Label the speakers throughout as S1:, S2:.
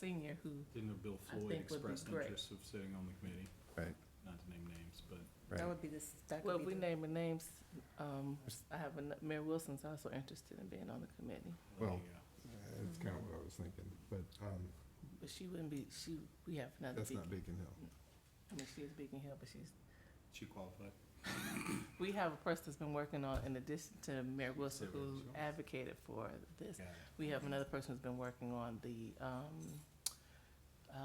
S1: senior who,
S2: Didn't know Bill
S1: I
S2: Floyd
S1: think would be
S2: expressed
S1: great.
S2: interest of sitting on the committee,
S3: Right,
S2: not to name names, but
S4: That
S3: right.
S4: would be this, that
S1: well,
S4: could
S1: if we
S4: be the,
S1: name the names, um, I have, an- Mayor Wilson's also interested in being on the committee.
S2: there
S3: Well,
S2: you go.
S3: That's kind of what I was thinking, but um,
S1: But she wouldn't be, she, we have another
S3: that's
S1: Beacon,
S3: not Beacon Hill.
S1: I mean, she is Beacon Hill, but she's,
S2: She qualified.
S1: we have a person that's been working on, in addition to Mayor Wilson,
S2: Sarah
S1: who
S2: Jones.
S1: advocated for this.
S2: Got it.
S1: We have another person who's been working on the, um, uh,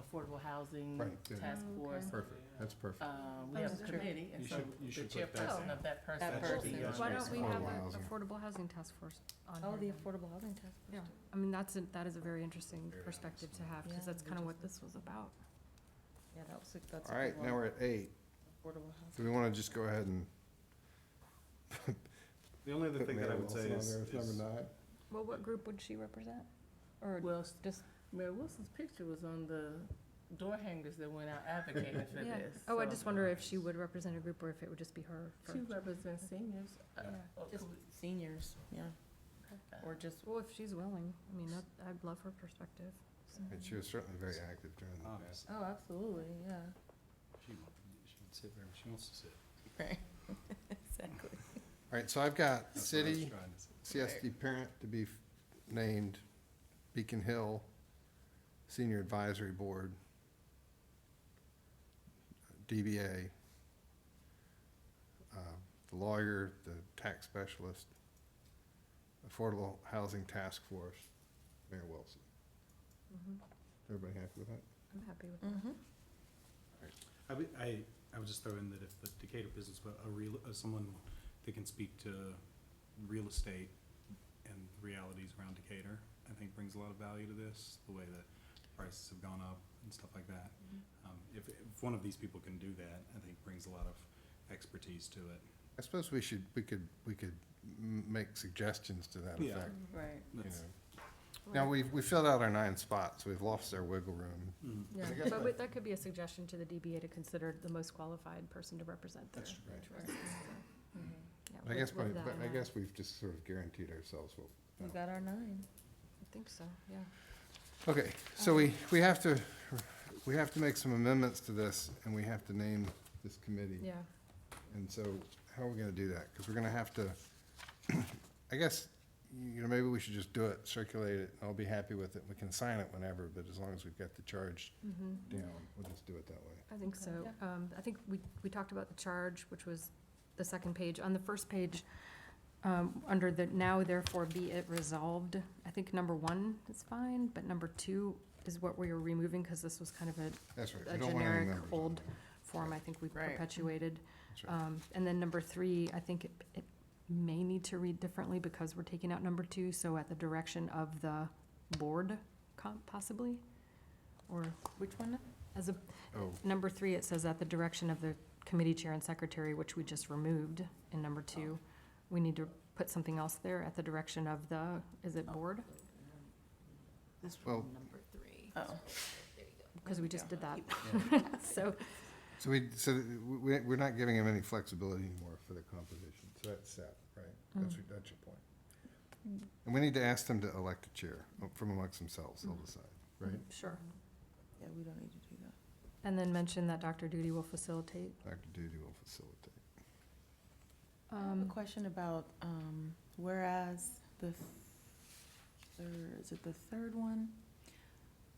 S1: affordable housing
S3: Right, the-
S1: task
S4: Oh,
S1: force.
S4: okay.
S3: Perfect, that's
S5: Uh,
S3: perfect.
S1: Um, we
S4: Oh,
S1: have a
S4: sure.
S1: committee, and
S2: You
S1: so
S2: should- you
S1: the
S2: should put that
S1: chairperson
S2: down.
S1: of that person.
S4: That
S1: should be
S4: person.
S1: on
S5: Why
S1: there.
S5: don't we
S3: Affordable
S5: have an
S3: housing.
S5: affordable housing task force on here?
S4: oh, the
S5: then?
S4: affordable housing task force.
S5: Yeah, I mean, that's, a- that is a very interesting
S2: Very
S5: perspective to
S2: interesting.
S5: have,
S4: Yeah,
S5: because that's
S4: we
S5: kind of
S4: just
S5: what
S4: did.
S5: this was about.
S4: Yeah, that was, a- that's. a
S3: All right,
S4: good
S3: now
S4: one.
S3: we're at eight.
S4: Affordable
S3: Do
S4: housing.
S3: we want to just go ahead and
S2: The only other
S3: put
S2: thing that I
S3: Mayor
S2: would say
S3: Wilson on
S2: is,
S3: there as
S2: is-
S3: number nine?
S5: Well, what group would she represent? Or
S1: Well,
S5: just,
S1: Mayor Wilson's picture was on the door hangers that went out advocating for
S5: yeah.
S1: this.
S5: Oh, I
S1: so-
S5: just wonder if she would represent a group or if it would just be her
S1: She
S5: first.
S1: represents seniors. Uh,
S5: Yeah.
S1: oh,
S4: Just
S1: could we-
S4: seniors, yeah,
S1: uh,
S4: or just,
S5: Well, if she's willing, I mean, that, I'd love her perspective. so.
S3: And she was certainly very active during
S2: Oh,
S3: the past.
S4: oh, absolutely, yeah.
S2: she, won't- she would sit wherever she wants to sit.
S4: Right, exactly.
S3: All right, so I've got
S2: That's what I was
S3: city,
S2: trying to say.
S3: CSD parent to be f- named, Beacon Hill Senior Advisory Board, DBA, uh, the lawyer, the tax specialist, Affordable Housing Task Force, Mayor Wilson.
S5: Mhm.
S3: Everybody happy with that?
S5: I'm happy with that.
S4: Mm-hmm.
S2: I would, I, I would just throw in that if the Decatur Business, but a real, uh, someone that can speak to real estate and realities around Decatur, I think brings a lot of value to this, the way that prices have gone up and stuff like that.
S4: Mm-hmm.
S2: Um, if, if one of these people can do that, I think brings a lot of expertise to it.
S3: I suppose we should, we could, we could m- make suggestions to that
S2: Yeah.
S3: effect,
S4: Right.
S3: you
S2: That's-
S3: know. Now, we've, we filled out our nine spots, we've lost our wiggle room.
S2: Mm.
S4: Yeah.
S3: I guess
S5: But
S3: that-
S5: wait, that could be a suggestion to the DBA to consider the most qualified person to represent their
S3: That's right.
S5: interests.
S4: Mhm.
S5: Yeah,
S3: I
S5: with-
S3: guess,
S5: with
S3: by-
S5: that uh,
S3: but
S5: in
S3: I
S5: mind.
S3: guess we've just sort of guaranteed ourselves what.
S4: We got our nine.
S5: I think so, yeah.
S3: Okay, so we, we have to, we have to make some amendments to this, and we have to name this committee.
S5: Yeah,
S3: And so, how are we gonna do that? Because we're gonna have to, I guess, you know, maybe we should just do it, circulate it, I'll be happy with it, we can sign it whenever, but as long as we've got the charge
S5: mhm.
S3: down, we'll just do it that way.
S5: I think
S4: Okay.
S5: so.
S4: Yeah.
S5: Um, I think we, we talked about the charge, which was the second page. On the first page, um, under the now therefore be it resolved, I think number one is fine, but number two is what we were removing because this was kind of a
S3: That's right.
S5: A
S3: we don't want any
S5: generic
S3: members on
S5: old-
S3: there.
S5: form I think we
S4: Right.
S5: perpetuated.
S3: That's right.
S5: Um, and then number three, I think it, it may need to read differently because we're taking out number two, so at the direction of the board com- possibly? Or
S4: Which one?
S5: as a,
S3: Oh,
S5: Number three, it says at the direction of the committee chair and secretary, which we just removed in number
S4: Oh.
S5: two. We need to put something else there, at the direction of the, is
S4: Oh.
S5: it board?
S4: This
S3: Well-
S4: number three.
S1: Oh,
S5: Because we just did that. So,
S3: so we, so we, we're not giving him any flexibility anymore for the composition, so that's set, right?
S5: Mm.
S3: That's, your- that's your point. And we need to ask them to elect a chair uh, from amongst themselves, they'll
S5: Mhm.
S3: decide, right?
S5: sure.
S4: Yeah, we don't need to do that.
S5: And then mention that Dr. Duty will facilitate.
S3: Dr. Duty will facilitate.
S4: I have a
S5: Um,
S4: question about, um, whereas the, th- third- is it the third one?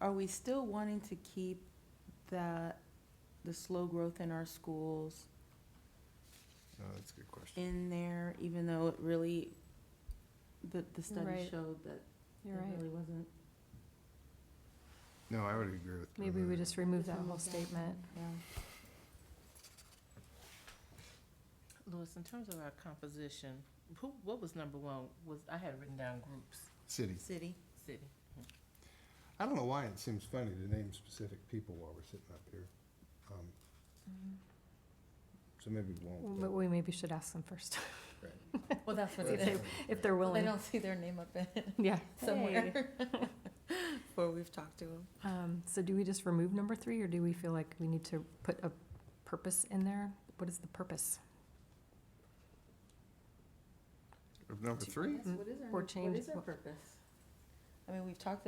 S4: Are we still wanting to keep that, the slow growth in our schools
S3: No, that's a good question.
S4: in there, even though it really, the, the study
S5: Right.
S4: showed that it
S5: You're right.
S4: really wasn't?
S3: No, I would agree with. uh,
S5: Maybe we
S3: with
S5: just remove that whole statement.
S4: Yeah.
S1: Louis, in terms of our composition, who, what was number one? Was, I had written down groups,
S3: City.
S4: City.
S1: city.
S3: I don't know why it seems funny to name specific people while we're sitting up here. Um,
S5: Mm-hmm.
S3: So maybe we won't.
S5: But we maybe should ask them first,
S4: Well, that's
S3: but-
S5: what they- if they're
S4: They
S5: willing.
S4: don't see their name up in it
S5: Yeah.
S4: somewhere. Before we've talked to them.
S5: Um, so do we just remove number three, or do we feel like we need to put a purpose in there? What is the purpose?
S3: Of Number three?
S5: Mm.
S4: What is our,
S5: Or
S4: what
S5: change
S4: is our
S5: what-
S4: purpose?
S1: I mean, we've talked